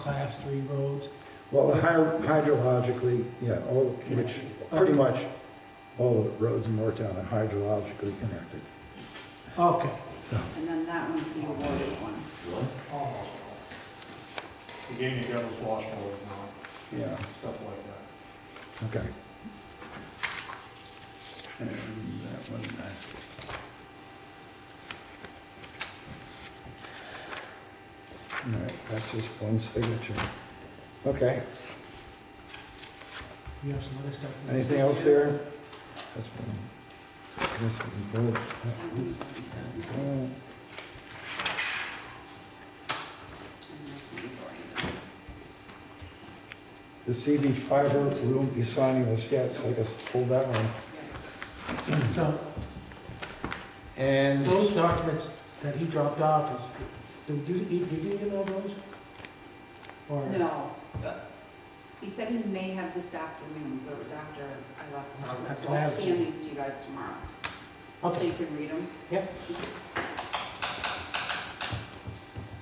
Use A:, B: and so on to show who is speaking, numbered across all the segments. A: class three roads.
B: Well, hy- hydrologically, yeah, all, which, pretty much, all the roads in Moretown are hydrologically connected,
A: Okay.
B: so.
C: And then that one's the awarded one.
D: Almost all. The game Devil's Wash more
B: Yeah,
D: stuff like that.
B: okay. And that one, uh, all right, that's just one signature. Okay,
A: You have some other stuff.
B: anything else there? That's one. This one, both.
C: And
B: Uh,
C: this one's awarded.
B: The CB fiber will be signing this yet, so I guess hold that one.
A: So
B: And
A: those documents that he dropped off is, did you, did you email those? Or
C: No, but he said he may have this afternoon, but it was after I left. the
A: I'll
C: office.
A: have to
C: So I'll
A: have it.
C: scan these to you guys tomorrow, so
A: Okay,
C: you can read them.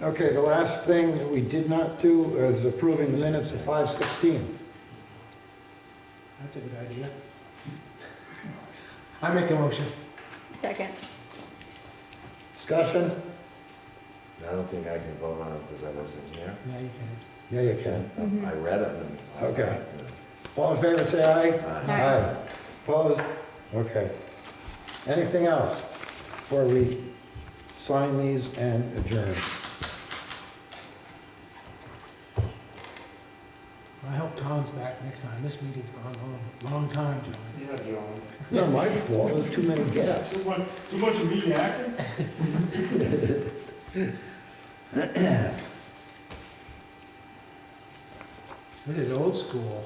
B: Okay, the last thing that we did not do is approving the minutes of 5:16.
A: that's a good idea. I make a motion.
E: Second.
B: Discussion?
F: I don't think I can vote on it because I wasn't here.
A: Yeah, you can.
B: Yeah, you can.
F: I read it. and-
B: Okay. All in favor, say aye.
F: Aye.
E: Aye.
B: Opposed? Okay. Anything else before we sign these and adjourn?
A: I hope Tom's back next time. This meeting's gone on a long time, John.
D: Yeah, John.
B: Not my fault, there's too many guests.
D: Too much, too much of me acting?
A: This is old school.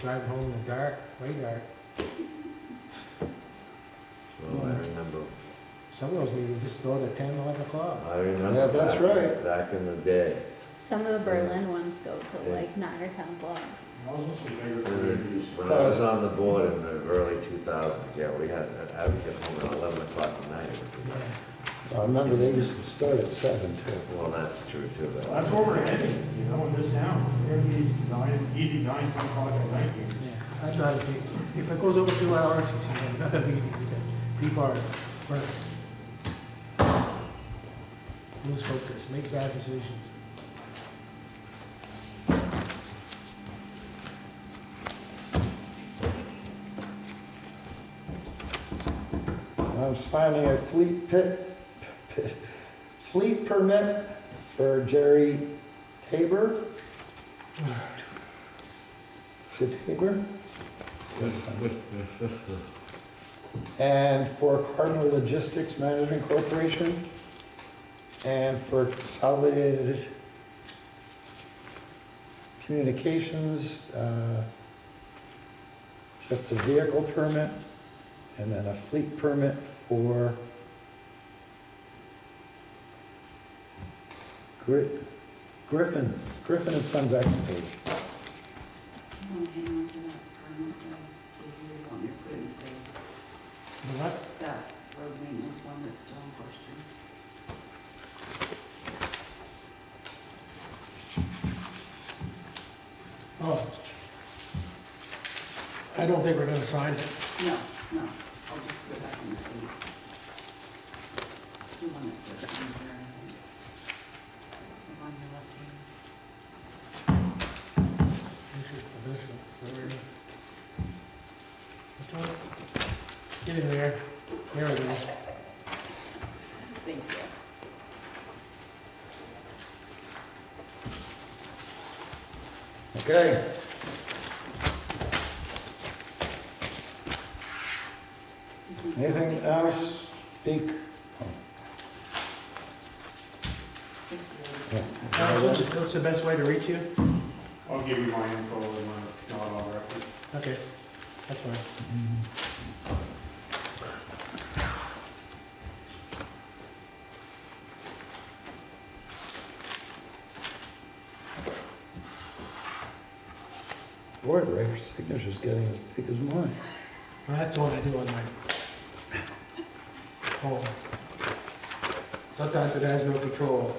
A: Drive home in the dark, way dark.
F: Well, I remember,
A: Some of those meetings just go to 10, 11 o'clock.
F: I remember.
B: Yeah, that's
F: back-
B: right.
F: Back in the day.
E: Some of the Berlin ones go to
F: Yeah.
E: like nine or ten o'clock.
D: I was supposed to figure
F: It was- When I was on the board in the early 2000s, yeah, we had, I would get home at 11 o'clock at night.
B: I remember they used to start at seven too.
F: Well, that's true too. but-
D: That's where we're heading, you know, in this town. It'd be nine, easy nine, ten o'clock at night. here.
A: Yeah, I try to think, if it goes over two hours, you should have another meeting because people are burnt. Lose focus, make bad decisions.
B: I'm signing a fleet pit, pit- fleet permit for Jerry Tabor. Is it Tabor? And for Cardinal Logistics Management Corporation. And for Consolidated Communications, uh, just a vehicle permit. And then a fleet permit for Gri- Griffin, Griffin and Sons Excavating.
C: I'm gonna hang on to that. I'm not gonna give you the one you're putting, so
A: You know what?
C: that road maintenance one that's still in question.
A: Oh. I don't think we're gonna sign it.
C: No, no, I'll just put it back in the sleeve. The one that says Sandra. The one you left in.
A: We should eventually sign it. Which one? Get in there, there we go.
C: Thank you.
B: Okay. Anything else? Speak.
C: Thank you.
B: Yeah.
A: Uh, What's what's the best way to reach you?
D: I'll give you my info and my, not all record.
A: Okay, that's fine.
B: Boy, Ray's signature's getting as big as mine.
A: Well, that's the one I do on my phone. Sometimes it has no control.